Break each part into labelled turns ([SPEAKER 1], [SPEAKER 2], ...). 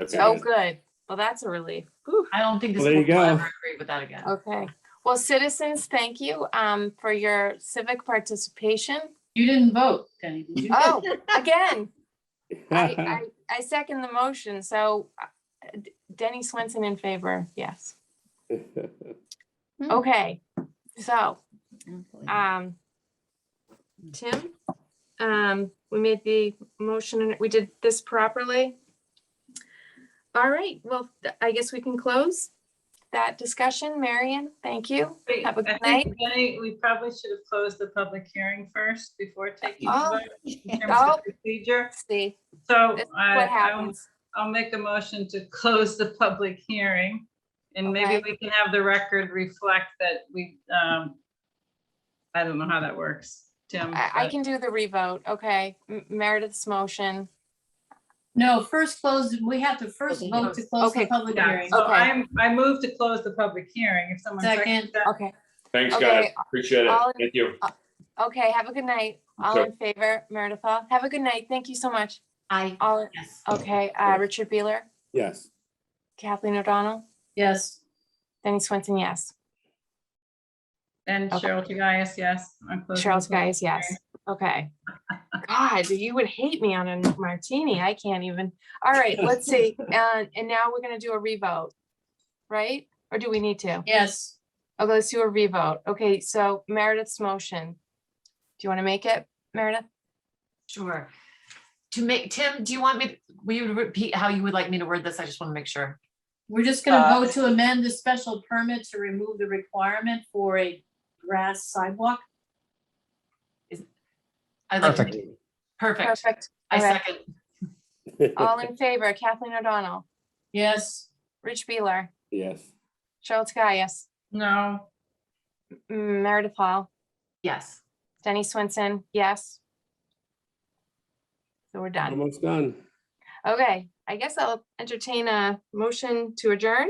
[SPEAKER 1] Okay.
[SPEAKER 2] Oh, good. Well, that's a relief. Whew.
[SPEAKER 3] I don't think this
[SPEAKER 4] Well, there
[SPEAKER 3] board
[SPEAKER 4] you
[SPEAKER 3] will
[SPEAKER 4] go.
[SPEAKER 3] ever agree with that again.
[SPEAKER 2] Okay. Well, citizens, thank you um, for your civic participation.
[SPEAKER 3] You didn't vote, Denny, did you?
[SPEAKER 2] Oh, again,
[SPEAKER 4] Uh-huh.
[SPEAKER 2] I, I, I second the motion. So uh, D- Denny Swenson in favor, yes. Hmm. Okay, so,
[SPEAKER 3] Hmm.
[SPEAKER 2] um, Tim, um, we made the motion and we did this properly. All right, well, th- I guess we can close that discussion. Marion, thank you.
[SPEAKER 5] Wait,
[SPEAKER 2] Have a
[SPEAKER 5] I
[SPEAKER 2] good
[SPEAKER 5] think, Jenny, we probably should have closed the public hearing first before taking. the
[SPEAKER 2] Oh.
[SPEAKER 5] vote in terms
[SPEAKER 2] Oh.
[SPEAKER 5] of Procedure,
[SPEAKER 2] See
[SPEAKER 5] so
[SPEAKER 2] this is
[SPEAKER 5] I,
[SPEAKER 2] what
[SPEAKER 5] I'll,
[SPEAKER 2] happens.
[SPEAKER 5] I'll make a motion to close the public hearing. And maybe
[SPEAKER 2] Okay.
[SPEAKER 5] we can have the record reflect that we, um, I don't know how that works, Tim.
[SPEAKER 2] I, I
[SPEAKER 5] but-
[SPEAKER 2] can do the revote, okay? M- Meredith's motion.
[SPEAKER 3] No, first close, we have to first vote to close the
[SPEAKER 2] Okay.
[SPEAKER 3] public
[SPEAKER 5] Yeah,
[SPEAKER 3] hearing.
[SPEAKER 5] so
[SPEAKER 2] Okay.
[SPEAKER 5] I'm, I move to close the public hearing, if someone seconds
[SPEAKER 3] Second.
[SPEAKER 5] that.
[SPEAKER 2] Okay,
[SPEAKER 1] Thanks,
[SPEAKER 2] Okay,
[SPEAKER 1] guys. Appreciate it.
[SPEAKER 2] all in-
[SPEAKER 1] Thank you.
[SPEAKER 2] okay, have a good night. All
[SPEAKER 1] Okay.
[SPEAKER 2] in favor, Meredith Hall. Have a good night. Thank you so much.
[SPEAKER 3] I,
[SPEAKER 2] All,
[SPEAKER 3] yes,
[SPEAKER 2] okay, uh, Richard Beeler,
[SPEAKER 4] Yes.
[SPEAKER 2] Kathleen O'Donnell,
[SPEAKER 3] yes.
[SPEAKER 2] Denny Swenson, yes.
[SPEAKER 5] And
[SPEAKER 2] Okay.
[SPEAKER 5] Cheryl Tagayas, yes. I'm closing the
[SPEAKER 2] Charles
[SPEAKER 5] public
[SPEAKER 2] Guy is yes.
[SPEAKER 5] hearing.
[SPEAKER 2] Okay. God, you would hate me on a martini. I can't even. All right, let's see. And, and now we're gonna do a revote, right? Or do we need to?
[SPEAKER 3] Yes,
[SPEAKER 2] Okay, let's do a revote. Okay, so Meredith's motion. Do you want to make it, Meredith?
[SPEAKER 6] Sure. To make, Tim, do you want me, will you repeat how you would like me to word this? I just want to make sure.
[SPEAKER 3] we're just gonna
[SPEAKER 6] Uh,
[SPEAKER 3] vote to amend the special permit to remove the requirement for a grass sidewalk.
[SPEAKER 6] I'd like to-
[SPEAKER 7] Perfect.
[SPEAKER 2] Perfect.
[SPEAKER 6] Perfect. I
[SPEAKER 2] Okay.
[SPEAKER 6] second.
[SPEAKER 2] All in favor, Kathleen O'Donnell,
[SPEAKER 3] Yes,
[SPEAKER 2] Rich Beeler,
[SPEAKER 4] Yes.
[SPEAKER 2] Charles Gaius,
[SPEAKER 5] No.
[SPEAKER 2] M- Meredith Hall,
[SPEAKER 6] Yes.
[SPEAKER 2] Denny Swenson, yes. So we're done.
[SPEAKER 4] Almost done.
[SPEAKER 2] Okay, I guess I'll entertain a motion to adjourn.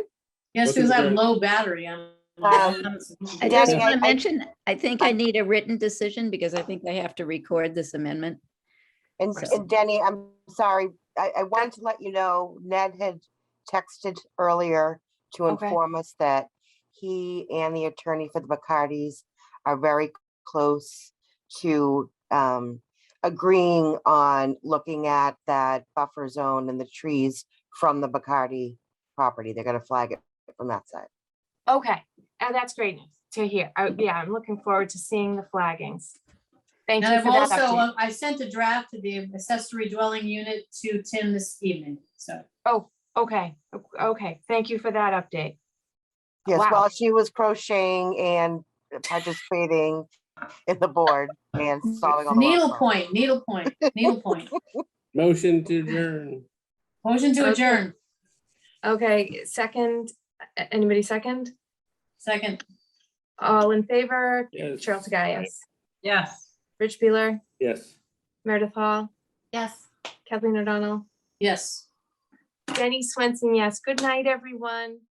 [SPEAKER 3] yes,
[SPEAKER 4] Vote to
[SPEAKER 3] because I have
[SPEAKER 4] adjourn.
[SPEAKER 3] low battery on.
[SPEAKER 2] Um,
[SPEAKER 8] I just
[SPEAKER 4] Yeah.
[SPEAKER 8] want to mention, I think I need a written decision because I think I have to record this amendment.
[SPEAKER 9] And
[SPEAKER 6] Right.
[SPEAKER 9] and Denny, I'm sorry, I, I wanted to let you know, Ned had texted earlier to
[SPEAKER 2] Okay.
[SPEAKER 9] inform us that he and the attorney for the Bacardis are very close to um, agreeing on looking at that buffer zone and the trees from the Bacardi property. They're gonna flag it from that side.
[SPEAKER 2] Okay, and that's great news to hear. I- Yeah, I'm looking forward to seeing the flaggings. Thank
[SPEAKER 3] And
[SPEAKER 2] you
[SPEAKER 3] I've
[SPEAKER 2] for that
[SPEAKER 3] also,
[SPEAKER 2] update.
[SPEAKER 3] uh, I sent a draft to the accessory dwelling unit to Tim this evening, so.
[SPEAKER 2] Okay, o- okay, thank you for that update.
[SPEAKER 9] Yes,
[SPEAKER 2] Wow.
[SPEAKER 9] while she was crocheting and participating in the board and solving all the.
[SPEAKER 3] Needle
[SPEAKER 9] problems.
[SPEAKER 3] point, needle point, needle point.
[SPEAKER 4] Motion to adjourn.
[SPEAKER 3] Motion to
[SPEAKER 2] Okay.
[SPEAKER 3] adjourn,
[SPEAKER 2] Okay, second, a- anybody second?
[SPEAKER 3] second,
[SPEAKER 2] All in favor?
[SPEAKER 4] Yes.
[SPEAKER 2] Charles Gaius,
[SPEAKER 5] Yes.
[SPEAKER 2] Rich Beeler,
[SPEAKER 4] Yes.
[SPEAKER 2] Meredith Hall,
[SPEAKER 6] Yes.
[SPEAKER 2] Kathleen O'Donnell,
[SPEAKER 3] yes.
[SPEAKER 2] Jenny Swenson, yes. Good night, everyone.